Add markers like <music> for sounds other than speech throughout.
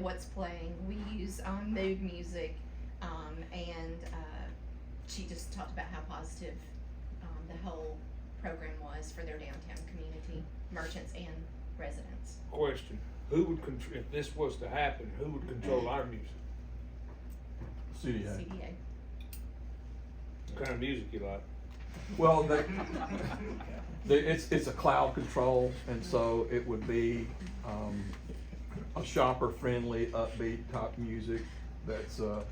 what's playing. We use um, mood music, um, and uh, she just talked about how positive um, the whole program was for their downtown community, merchants and residents. Question, who would control, if this was to happen, who would control our music? CDA. CDA. What kind of music you <laughs> like? Well, they, they, it's, it's a cloud control, and so it would be, um, a shopper-friendly, upbeat type music that's, uh,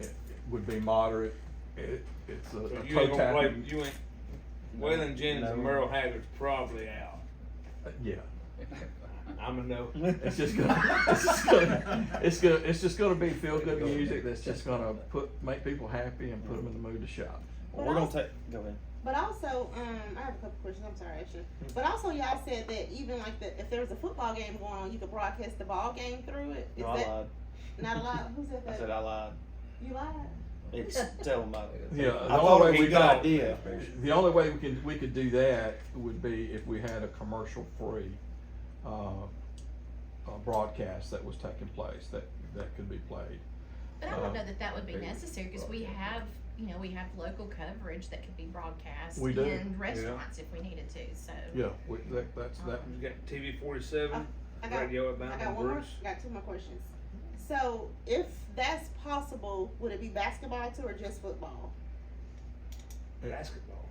it- it would be moderate. It, it's a So a you ain't toe gonna play, tapping. you ain't, Waylon Jennings and Merle Haggard's probably out. Uh, Yeah, I'm a <laughs> no. it's just gonna, <laughs> it's just gonna, it's gonna, it's just gonna be feel-good music that's just gonna put, make people happy and put them in the mood to shop. Well, But we're gonna also- take. Go ahead. But also, um, I have a couple questions. I'm sorry, Ashley. But also, y'all said that even like the if there was a football game going on, you could broadcast the ball game through it. Is No, I that lied. <laughs> not allowed? Who said I that? said I lied. you lied. It's <laughs> still my. Yeah. I the thought only it way was a we good got- idea. The only way we can, we could do that would be if we had a commercial-free, uh, uh, broadcast that was taking place, that, that could be played. But I don't Uh, know that that would be they- necessary because we have, you know, we have local coverage that could be broadcast We do, in restaurants if we needed to. So Yeah, we, that, that's, that, Um, You got TV forty-seven, I got radio at I got Bound one more. Bruce. I got two more questions. So, if that's possible, would it be basketball too or just football? Basketball.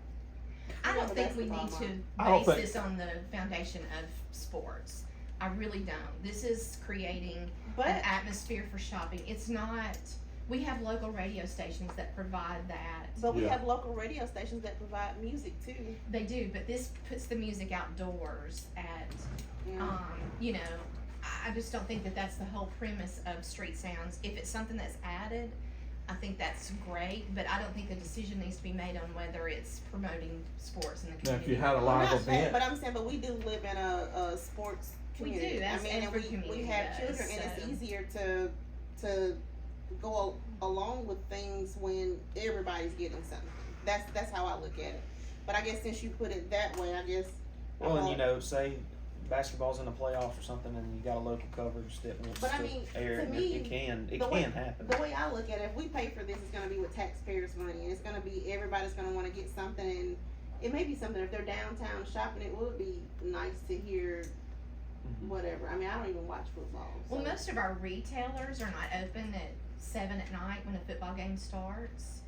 I don't Yeah, think we basketball need to I don't base think- this on the foundation of sports. I really don't. This is creating an But atmosphere for shopping. It's not. We have local radio stations that provide that. but we Yeah. have local radio stations that provide music too. They do, but this puts the music outdoors at You know? um, you know, I- I just don't think that that's the whole premise of street sounds. If it's something that's added, I think that's great, but I don't think the decision needs to be made on whether it's promoting sports in the now if you community. had a I'm live not saying, but event, I'm saying, but we do live in a, a sports We do, community. that's I mean, and every we, community we have does, children, and so. it's easier to to go al- along with things when everybody's getting something. That's that's how I look at it. But I guess since you put it that way, I guess Well, and you Uh, know, say basketball's in a playoff or something, and you got a local coverage that wants But I to mean, air to it. me, it can, it the can way- happen. the way I look at it, if we pay for this, it's going to be with taxpayers' money, and it's going to be everybody's going to want to get something. And it may be something if they're downtown shopping. It would be nice to hear Mhm. whatever. I mean, I don't even watch football. so- Well, most of our retailers are not open at seven at night when a football game starts.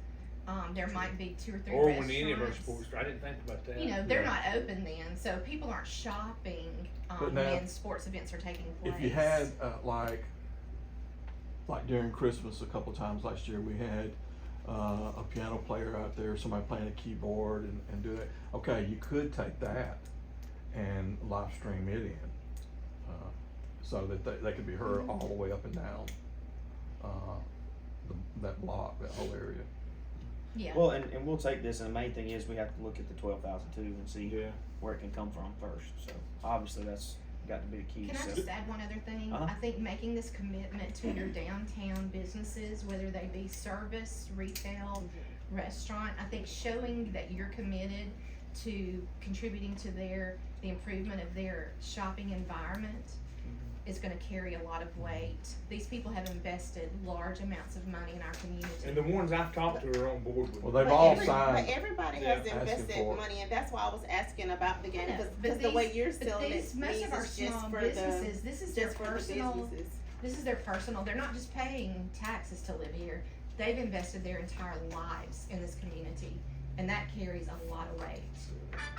Um, there might be two or three Or restaurants. when any of our sports, I didn't think about that. You know, they're Yeah. not open then, so people aren't shopping um, But now- when sports events are taking place. if you had, uh, like, like during Christmas a couple times last year, we had, uh, a piano player out there, somebody playing a keyboard and, and do that. Okay, you could take that and live stream it in, uh, so that they, they could be heard all the way up and down, uh, the, that block, that whole area. Yeah. Well, and, and we'll take this, and the main thing is we have to look at the twelve thousand too and see Yeah. where it can come from first. So obviously that's got to be the key. Can so. I just add one other thing? Uh-huh. I think making this commitment to your downtown businesses, whether they be service, retail, restaurant, I think showing that you're committed to contributing to their, the improvement of their shopping environment Mm-hmm. is gonna carry a lot of weight. These people have invested large amounts of money in our And the community. ones I've talked to are on board with. Well, it. they've But all every- signed. But everybody Yeah. has Asking invested for it. money, and that's why I was asking about the game Yeah, because, but because the way these- you're But selling these, it most means of our it's just small for the businesses, this is their just for the personal businesses. This is their personal, they're not just paying taxes to live here, they've invested their entire lives in this community, and that carries a lot of weight.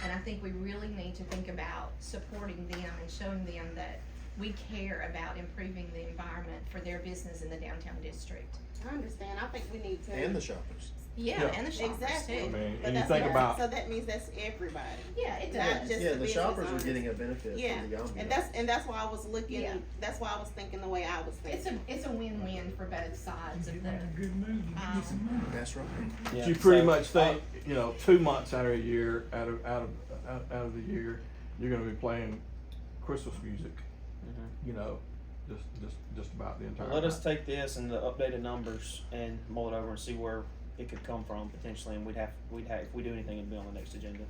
And I think we really need to think about supporting them and showing them that we care about improving the environment for their business in the downtown district. I understand. I think we need to. And the shoppers. Yeah, Yeah. and the shoppers Exactly. I too. mean, and but you that's think not- about, So that means that's everybody, Yeah, it not does. just Yeah, the the business shoppers are owners. getting a benefit Yeah, from the And ambiance. that's and that's why I was looking. Yeah. That's why I was thinking the way I was It's thinking. a, it's a win-win for both sides of the, um, That's right. Yeah, you pretty so, much uh, think, you know, two months out of a year, out of, out of, out, out of the year, you're gonna be playing Christmas music, mhm. you know, just, just, just about the entire. Let us night. take this and the updated numbers and mull it over and see where it could come from potentially, and we'd have, we'd have, if we do anything, it'd be on the next agenda.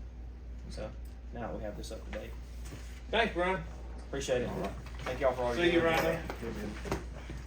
So, now that we have this up to date, Thanks, Brian. appreciate it, thank y'all for all your. See you, doing. Rhino. Good man.